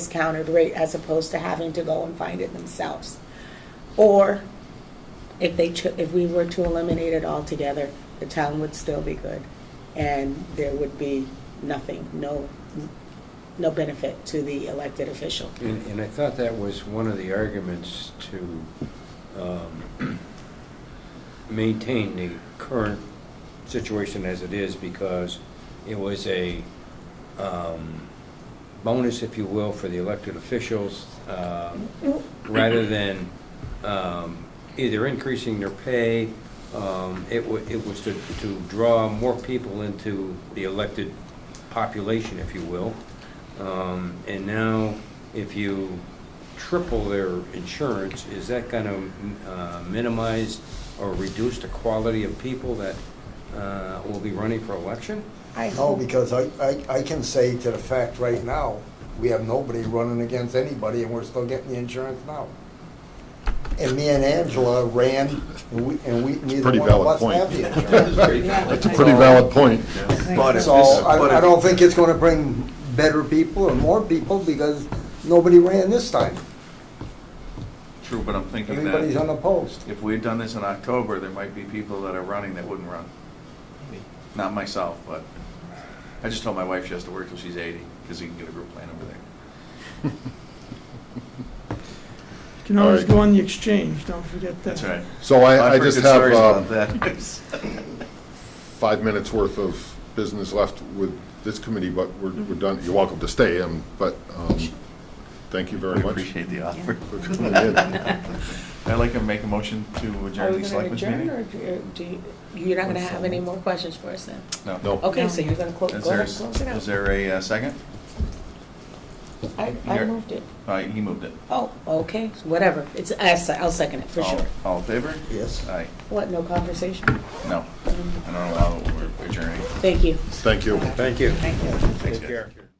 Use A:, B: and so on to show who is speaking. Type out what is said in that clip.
A: discounted rate as opposed to having to go and find it themselves. Or if they, cho- if we were to eliminate it altogether, the town would still be good and there would be nothing, no, no benefit to the elected official.
B: And, and I thought that was one of the arguments to um, maintain the current situation as it is because it was a um, bonus, if you will, for the elected officials, uh, rather than um, either increasing their pay, um, it wa, it was to, to draw more people into the elected population, if you will. Um, And now, if you triple their insurance, is that going to minimize or reduce the quality of people that uh, will be running for election?
A: I
C: No,
A: hope,
C: because I, I, I can say to the fact right now, we have nobody running against anybody and we're still getting the insurance now. And me and Angela ran, and we, and we, neither
D: pretty
C: one of
D: valid
C: us
D: point.
C: have the insurance.
D: That's a pretty valid point.
E: But if
C: So
E: this- but
C: I, I
E: if-
C: don't think it's gonna bring better people or more people because nobody ran this time.
E: True, but I'm thinking
C: Everybody's
E: that
C: unopposed.
E: if we had done this in October, there might be people that are running that wouldn't run. Not myself, but I just told my wife she has to work till she's 80, because you can get a group plan over there.
F: You can always
D: All right.
F: go on the exchange, don't forget that.
E: That's right.
D: So I, I
E: I've heard
D: just
E: good
D: have um,
E: stories
D: uh,
E: about that.
D: five minutes worth of business left with this committee, but we're, we're done. You're welcome to stay, um, but, um, thank you very
E: We
D: much.
E: appreciate the offer.
D: for coming in.
E: I'd like to make a motion to
A: are
E: adjourn
A: we
E: the
A: going to
E: selectmen's
A: adjourn or
E: meeting.
A: do you- do you, you're not going to have any more questions for us then?
D: No,
A: Okay, so you're going to close,
E: Is
A: Oh, go
E: there,
A: ahead, close it
E: is
A: out.
E: there a uh, second?
A: I, I
E: there-
A: moved it.
E: Uh, He moved it.
A: Oh, okay, whatever. It's, I se- I'll second it for
E: All-
A: sure.
E: All in favor?
C: Yes.
E: Aye.
A: What, no conversation?
E: No,
A: Um,
E: I don't allow it. We're adjourning.
A: Thank you.
D: thank you.
B: Thank you.
A: Thank you.
E: Thanks, guys.
B: Take care.